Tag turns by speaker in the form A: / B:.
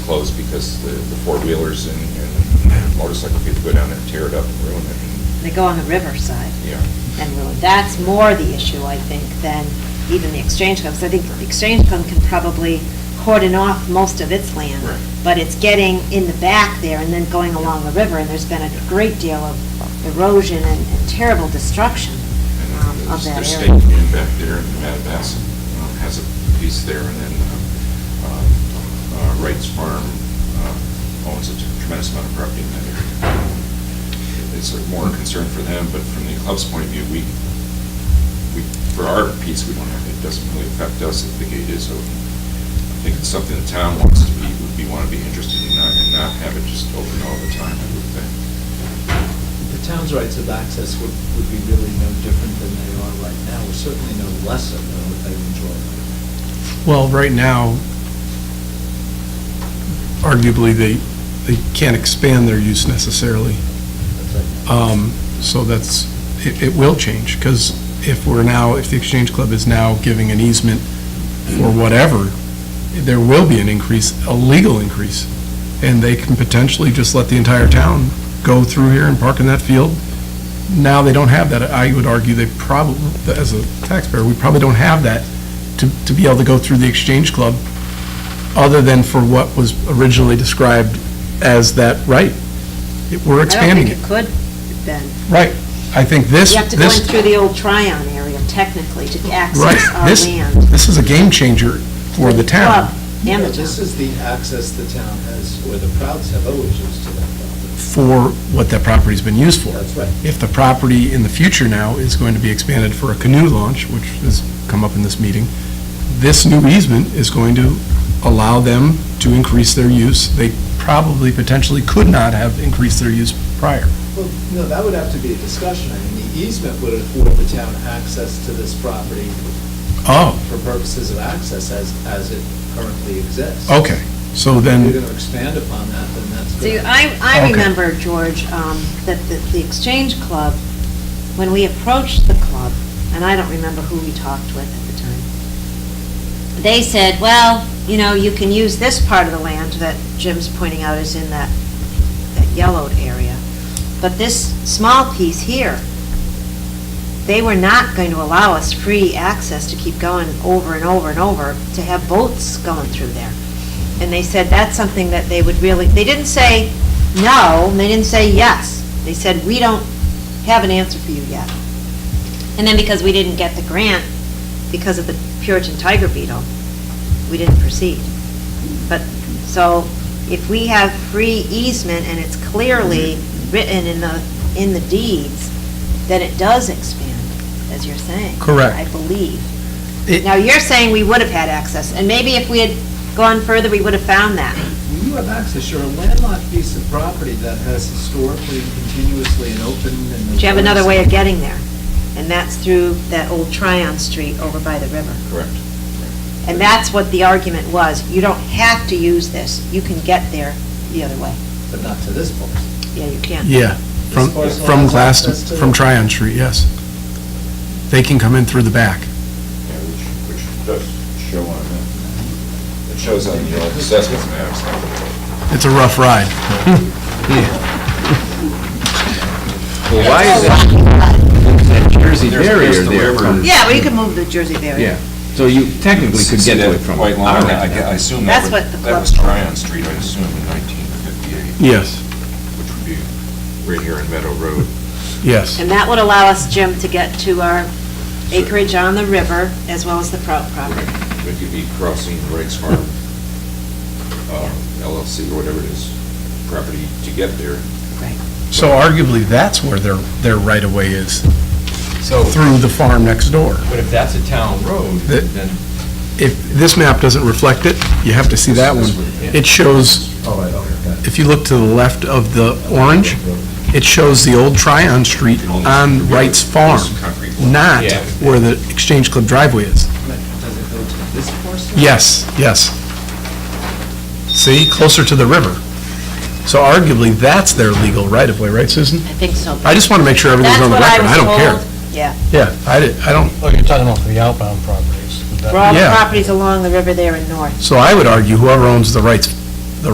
A: closed because the the four-wheelers and and motorcycle people go down there and tear it up and ruin it.
B: They go on the riverside.
A: Yeah.
B: And really, that's more the issue, I think, than even the Exchange Club, 'cause I think the Exchange Club can probably cordon off most of its land.
A: Right.
B: But it's getting in the back there and then going along the river, and there's been a great deal of erosion and and terrible destruction
A: And
B: um, of
A: there's-
B: that
A: There's
B: area.
A: state land back there, and Matt Bass um, has a piece there, and then uh, uh, uh, Wright's Farm uh, owns a tremendous amount of property in that area. It's a more concern for them, but from the club's point of view, we, we, for our piece, we don't have, it doesn't really affect us if the gate is open. I think it's something the town wants to be, would be, want to be interested in, not- and not have it just open all the time, I would think.
C: The town's rights of access would, would be really no different than they are right now, or certainly no less of than what they enjoy.
D: Well, right now, arguably, they, they can't expand their use necessarily.
C: That's right.
D: Um, So that's, it, it will change, because if we're now, if the Exchange Club is now giving an easement for whatever, there will be an increase, a legal increase, and they can potentially just let the entire town go through here and park in that field. Now they don't have that. I would argue they probably, as a taxpayer, we probably don't have that to, to be able to go through the Exchange Club, other than for what was originally described as that right. It- We're expanding it.
B: I don't think it could, Ben.
D: Right, I think this,
B: You have to go in
D: this,
B: through the old Tryon area technically to
D: right,
B: access our
D: this,
B: land.
D: this is a game changer for the town,
B: Club And
C: No,
B: the town.
C: This is the access the town has, or the Prouds have always used to that property.
D: for what that property's been used for.
C: That's right.
D: If the property in the future now is going to be expanded for a canoe launch, which has come up in this meeting, this new easement is going to allow them to increase their use. They probably potentially could not have increased their use prior.
C: Well, no, that would have to be a discussion. I mean, the easement would afford the town access to this property
D: Oh,
C: for purposes of access as, as it currently exists.
D: okay, so
C: If you're
D: Oh, then,
C: going to expand upon that, then that's.
B: See,
C: gonna-
B: I, I
D: Okay.
B: remember, George, um, that the, the Exchange Club, when we approached the club, and I don't remember who we talked with at the time, they said, well, you know, you can use this part of the land that Jim's pointing out is in that, that yellowed area, but this small piece here, they were not going to allow us free access to keep going over and over and over, to have boats going through there. And they said that's something that they would really, they didn't say no, and they didn't say yes. They said, we don't have an answer for you yet. And then because we didn't get the grant, because of the Puritan tiger beetle, we didn't proceed. But, so, if we have free easement and it's clearly written in the, in the deeds, then it does expand, as you're saying.
D: Correct.
B: I believe.
D: It-
B: Now, you're saying we would have had access, and maybe if we had gone further, we would have found that.
C: When you have access, you're a landlocked piece of property that has historically and continuously an open and.
B: But you have another way of getting there, and that's through that old Tryon Street over by the river.
A: Correct.
B: And that's what the argument was, you don't have to use this, you can get there the other way.
C: But not to this point.
B: Yeah, you can.
D: yeah, from,
C: This parcel
D: from
C: has
D: Glass,
C: access to-
D: from Tryon Street, yes. They can come in through the back.
A: Yeah, which, which does show on that. It shows on the old assessment maps.
D: It's a rough ride.
E: Well, why is that- is that Jersey
A: There's-
E: barrier
A: there's the
E: there?
A: river.
E: from-
B: Yeah, well, you can move the Jersey barrier.
E: Yeah, so you technically could get to it from.
A: White line,
E: our end.
A: I gue- I assume that
B: That's
A: would-
B: what the
A: that
B: club-
A: was Tryon Street, I assume, in 1958,
D: Yes,
A: which would be right here in Meadow Road.
D: yes.
B: And that would allow us, Jim, to get to our acreage on the river, as well as the Prout property.
A: But you'd be crossing Wright's Farm uh, LLC or whatever it is, property to get there.
D: So arguably, that's where their, their right-of-way is,
F: So,
D: through the farm next door.
F: but if that's a town road,
D: The-
F: then
D: If this map doesn't reflect it, you have to see that one. It shows,
C: All
A: Oh,
C: right, okay.
D: if you look to the left of the orange, it shows the old Tryon Street on Wright's Farm,
A: Concrete block.
D: not
F: Yeah.
D: where the Exchange Club driveway is.
C: Does it go to this portion?
D: Yes, yes. See, closer to the river. So arguably, that's their legal right-of-way, right, Susan?
B: I think so.
D: I just want to make sure everything's on the record. I don't care.
B: That's what I was told, yeah.
D: Yeah, I di- I don't,
G: Oh, you're talking about the outbound properties.
B: For all the
D: Yeah.
B: properties along the river there and north.
D: So I would argue whoever owns the rights